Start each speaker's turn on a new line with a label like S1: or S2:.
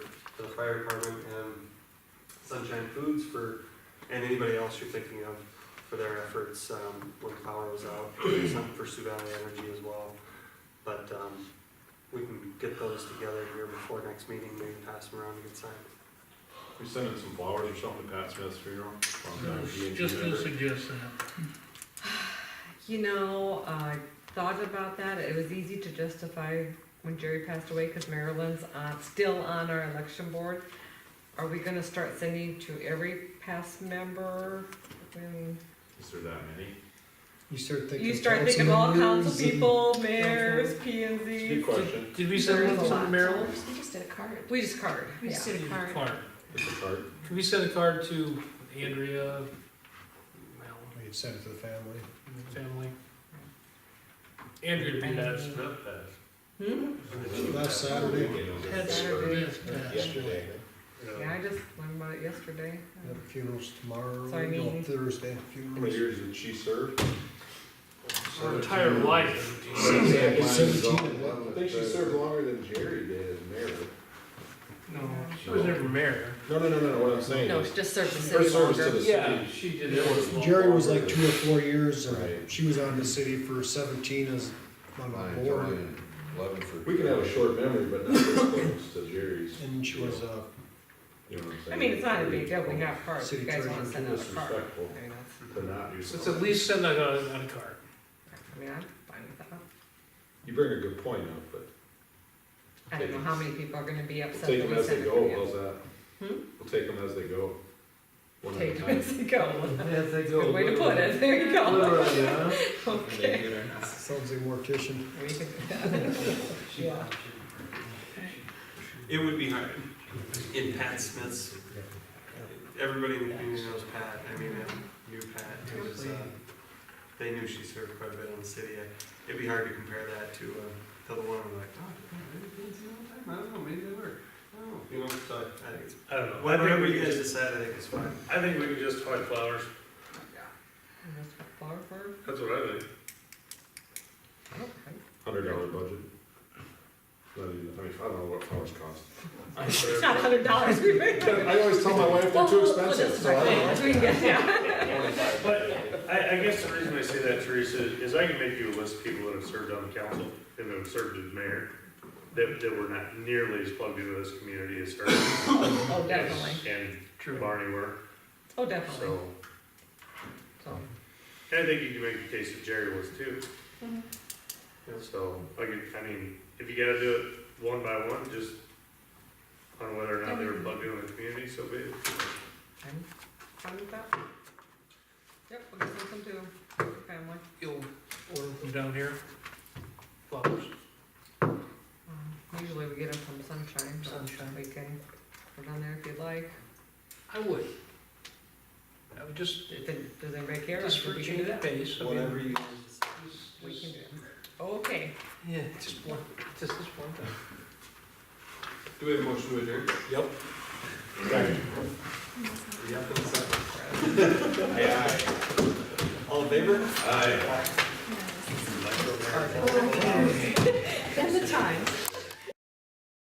S1: fire department and Sunshine Foods for, and anybody else you're thinking of for their efforts, um, when power was out, some for Sioux Valley Energy as well. But, um, we can get those together here before next meeting, maybe pass them around and get signed.
S2: We send in some flowers or something to Pat Smith's funeral. on the
S3: Just-
S2: D&D
S3: Just a
S2: member.
S3: suggestion.
S4: You know, I thought about that. It was easy to justify when Jerry passed away because Maryland's uh, still on our election board. Are we gonna start sending to every past member? Um,
S2: Is there that many?
S5: You start thinking.
S4: You start
S5: council
S4: thinking of all council
S5: members and-
S4: people, mayors, P and
S2: It's a good
S4: Z.
S2: question.
S3: Did we
S4: There
S3: send
S4: is
S3: one
S4: a
S3: to
S4: lot.
S3: Maryland?
S6: We just did a card.
S4: We just card,
S6: We
S4: yeah.
S6: just did a card.
S2: It's a card.
S3: Could we send a card to Andrea, Mel,
S5: We'd send it to the family.
S3: family? Andrea
S4: And-
S3: Pat Smith.
S4: Hmm?
S5: Last Saturday.
S4: Saturday.
S3: Smith passed.
S5: Yesterday.
S4: Yeah, I just learned about it yesterday.
S5: Have funerals tomorrow,
S4: So I
S5: no,
S4: mean-
S5: Thursday,
S2: How many
S5: funerals.
S2: years did she serve?
S3: Her entire life.
S5: Seventeen.
S7: I think she served longer than Jerry did as mayor.
S3: No, she was never mayor.
S2: No, no, no, no, what I'm saying
S4: No,
S2: is,
S4: it's just serve the
S2: her
S4: city
S2: service to
S4: longer.
S2: the city.
S3: she did.
S2: It was a lot
S5: Jerry was
S2: longer
S5: like
S2: than-
S5: two or four years, and
S7: Right.
S5: she was on the city for seventeen as on
S7: Mine,
S5: the board.
S7: Joanne, Eleven for.
S2: We can have a short memory, but not as close to Jerry's,
S5: And she was, uh,
S2: you know what I'm saying?
S4: I mean, it's not a big deal. We got cards.
S5: City
S4: You guys wanna
S5: treasurer,
S4: send out a card.
S2: Disrespectful
S4: I mean, that's,
S2: to not do
S3: Let's
S2: something.
S3: at least send that on, on a card.
S4: I mean, I'm fine with that.
S2: You bring a good point up, but
S4: I don't know how many people are gonna be
S2: we'll
S4: upset
S2: take
S4: that
S2: them
S4: we
S2: as
S4: sent
S2: they
S4: it
S2: go,
S4: to you.
S2: how's that?
S4: Hmm?
S2: We'll take them as they go. One at a
S4: Take them
S2: time.
S4: as they go.
S1: As they
S4: Good way to put it, there you go. Okay.
S5: sounds like a mortician.
S4: We can do Yeah.
S1: It would be hard. In Pat Smith's, everybody in the community knows Pat, I mean, I knew Pat, it was, uh, they knew she served quite a bit on the city. It'd be hard to compare that to, uh, to the one I'm like, oh, maybe it's a long time, I don't know, maybe they were. I don't know, you know, so I think it's,
S8: I don't know.
S1: whatever you guys decide, I think it's fine.
S8: I think we could just hide flowers.
S4: Flower for,
S8: That's what I think.
S4: okay.
S2: Hundred dollar budget. Not even, I mean, I don't know what flowers cost.
S4: It's not hundred dollars, we made it.
S2: I always tell my wife they're too expensive, so I don't know.
S4: expensive.
S8: But I, I guess the reason I say that, Teresa, is I can make you a list of people that have served on the council and that have served as mayor, that, that were not nearly as plugged into this community as her.
S4: Oh, definitely,
S8: And
S3: True.
S8: Barney were,
S4: oh, definitely,
S8: so,
S4: so,
S8: and I think you can make the case that Jerry was too.
S2: um,
S4: Mhm.
S8: So, I could, I mean, if you gotta do it one by one, just on whether or not they were plugged into the community, so be it.
S4: I'm fine with that. Yep, we'll just send them to your family.
S3: You'll order from down here. Flowers.
S4: Um, Usually we get them from Sunshine,
S3: Sunshine.
S4: but we can put on there if you'd like,
S3: I would. I would just,
S4: if it, does anybody care,
S3: just for
S4: we can
S3: change
S4: do
S3: of
S4: that,
S3: pace. I mean,
S1: Whatever you guys decide.
S3: just-
S4: we can do that. Okay.
S3: Yeah, just one, just this one time.
S1: Do we have a motion to adjourn?
S2: Yep.
S1: Yep, and a second.
S2: Aye, aye.
S1: All in favor?
S2: Aye.
S6: And the time.